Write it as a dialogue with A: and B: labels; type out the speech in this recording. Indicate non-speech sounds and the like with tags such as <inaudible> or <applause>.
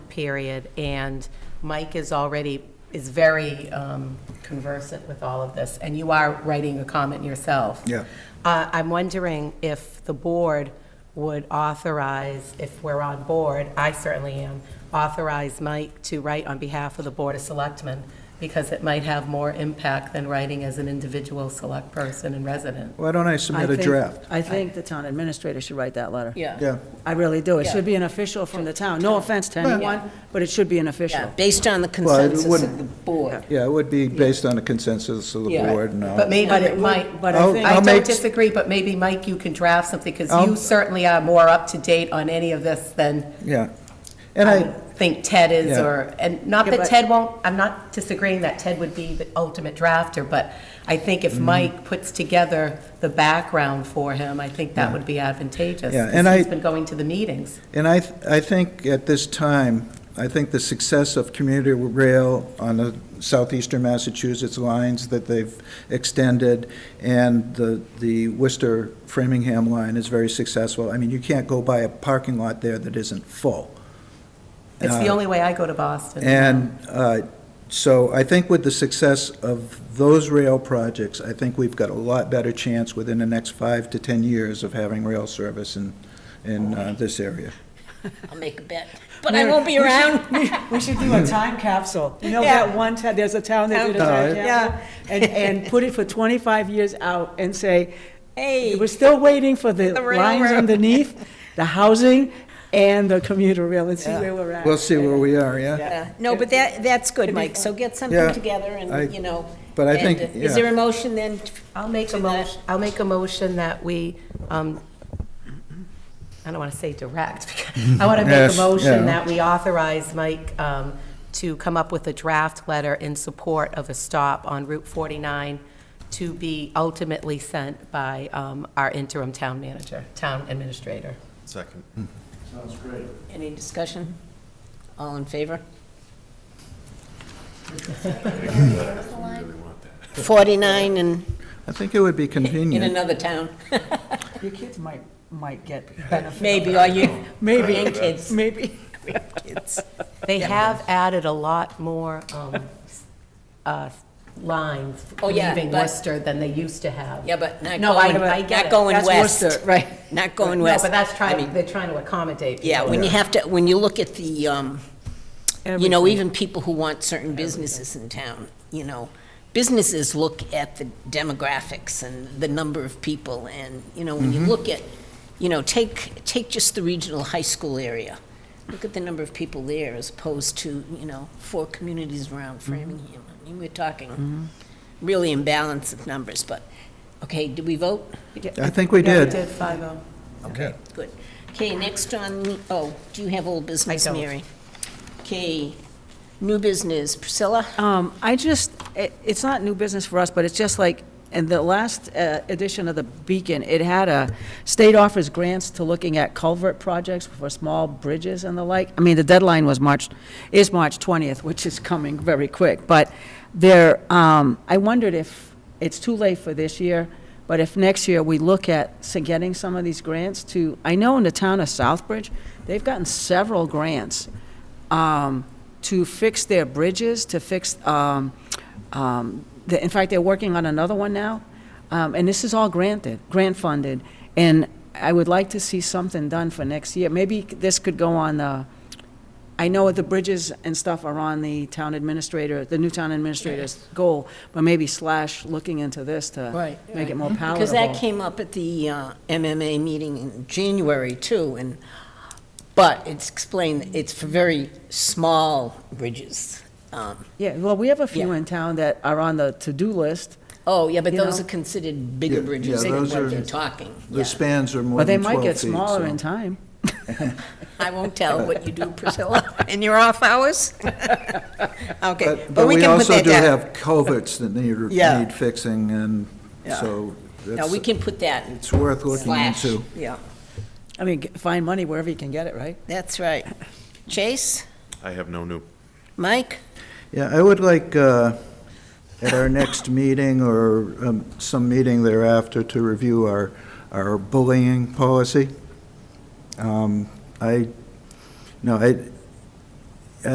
A: period, and Mike is already, is very um, conversant with all of this, and you are writing a comment yourself.
B: Yeah.
A: Uh, I'm wondering if the board would authorize, if we're on board, I certainly am, authorize Mike to write on behalf of the Board of Selectmen, because it might have more impact than writing as an individual select person and resident.
B: Why don't I submit a
C: think-
B: draft?
C: I think the town administrator should write that letter.
B: Yeah,
C: I really do. It should be an official from the town. No offense to anyone, but it should be an
D: Yeah,
C: official.
D: based on the
B: it
D: consensus of
B: wouldn't-
D: the board.
B: yeah, it would be based on a consensus of the
D: Yeah.
B: board and all.
A: But maybe
C: But
A: it
C: it would-
A: might,
C: but
B: Oh, I I'll- think- I'll
A: I don't
B: make-
A: disagree, but maybe, Mike, you can draft something, because you
B: I'll-
A: certainly are more up to date on any of this than
B: Yeah. And
A: I
B: I,
A: would think Ted is,
B: Yeah.
A: or, and not
C: Yeah,
A: that
C: but-
A: Ted won't, I'm not disagreeing that Ted would be the ultimate drafter, but I think
B: Mm-hmm.
A: if Mike puts together the background for him, I think that would be advantageous.
B: Yeah,
A: 'cause
B: and
A: He's
B: I-
A: been going to the meetings.
B: and I, th- I think at this time, I think the success of commuter rail on the southeastern Massachusetts lines that they've extended and the, the Worcester Framingham line is very successful. I mean, you can't go by a parking lot there that isn't full.
A: It's the
B: Uh,
A: only way I go to Boston.
B: And uh, so I think with the success of those rail projects, I think we've got a lot better chance within the next five to 10 years of having rail service in, in uh, this area.
D: I'll make a bet, but I won't be around.
E: We should do a time capsule. You know that one, town- there's a town that did a time
B: Alright.
E: capsule? And, and put it for 25 years out and say, hey, we're still waiting for the lines underneath, the housing, and the commuter rail, and see where we're at.
B: We'll see where we are, yeah?
D: Uh, No, but that, that's good, Mike, so get
B: Yeah,
D: something together
B: I-
D: and, you know.
B: but I
D: and,
B: think,
D: uh,
B: yeah.
D: Is there a motion then? t-
A: I'll make a
D: to that?
A: motion, I'll make a motion that we, um, I don't want to say direct, <laughs> because I want to make a
B: Yes,
A: motion
B: yeah.
A: that we authorize Mike um, to come up with a draft letter in support of a stop on Route 49 to be ultimately sent by um, our interim town manager, town administrator.
F: Second.
D: Any discussion? All in favor? Forty-nine and
B: I think it would be
D: in
B: convenient.
D: another town,
E: Your kids might, might get benefit.
D: maybe, are you?
E: Maybe.
D: Grandkids.
E: Maybe.
D: Grandkids.
A: They have added a lot more um, s- uh, lines
D: Oh, yeah,
A: leaving
D: but-
A: Worcester than they used to have.
D: Yeah, but not
A: No, I-
D: going,
A: I get
D: not
A: it.
D: going
E: That's
D: west.
E: Worcester, right.
D: Not going
A: No,
D: west.
A: but that's
D: I mean,
A: trying, they're trying to accommodate.
D: Yeah,
A: people.
D: when you have to, when you look at the, um, you know, even people who want certain businesses in town, you know, businesses look at the demographics and the number of people, and, you know, when you look at, you know, take, take just the regional high school area, look at the number of people there as opposed to, you know, four communities around Framingham. I mean, we're talking really imbalance of numbers, but, okay, did we vote?
B: I think we
A: Yeah, we
B: did.
A: did
E: oh.
A: 5
B: Okay.
D: Good. Okay, next on, oh, do you have old business,
A: don't.
D: Mary? Okay, new business, Priscilla?
C: Um, I just, it, it's not new business for us, but it's just like, in the last uh, edition of the Beacon, it had a, state offers grants to looking at culvert projects for small bridges and the like. I mean, the deadline was March, is March 20th, which is coming very quick, but there, um, I wondered if, it's too late for this year, but if next year we look at s- getting some of these grants to, I know in the town of Southbridge, they've gotten several grants um, to fix their bridges, to fix, um, um, the- in fact, they're working on another one now, Um, and this is all granted, grant-funded, and I would like to see something done for next year. Maybe this could go on the, I know the bridges and stuff are on the town administrator, the new town administrator's goal, but maybe slash looking into this to
D: Right,
C: make it more palatable.
D: Because that came up at the uh, MMA meeting in January, too, and, but it's explained, it's for very small bridges. Um,
C: Yeah, well, we have a few
D: Yeah.
C: in town that are on the to-do list,
D: Oh, yeah, but
C: You
D: those
C: know?
D: are considered bigger
B: Yeah, yeah,
D: bridges than
B: those are-
D: what they're talking.
B: The
D: Yeah.
B: spans are more
C: but they
B: than
C: might
B: 12 feet.
C: get smaller
B: so-
C: in time.
D: I won't tell what you do, Priscilla, in your off hours? Okay,
B: <laughs> But
D: but we can put
B: also
D: that
B: do
D: down.
B: have culverts that need,
D: Yeah.
B: need fixing, and
D: Yeah.
B: so
D: No,
B: that's,
D: we can put that
B: it's worth looking
D: slash,
B: into.
D: yeah.
C: I mean, g- find money wherever you can get it, right?
D: That's right. Chase,
F: I have no new.
D: Mike,
B: Yeah, I would like, uh, at our next meeting or um, some meeting thereafter, to review our, our bullying policy. Um, I, no, I,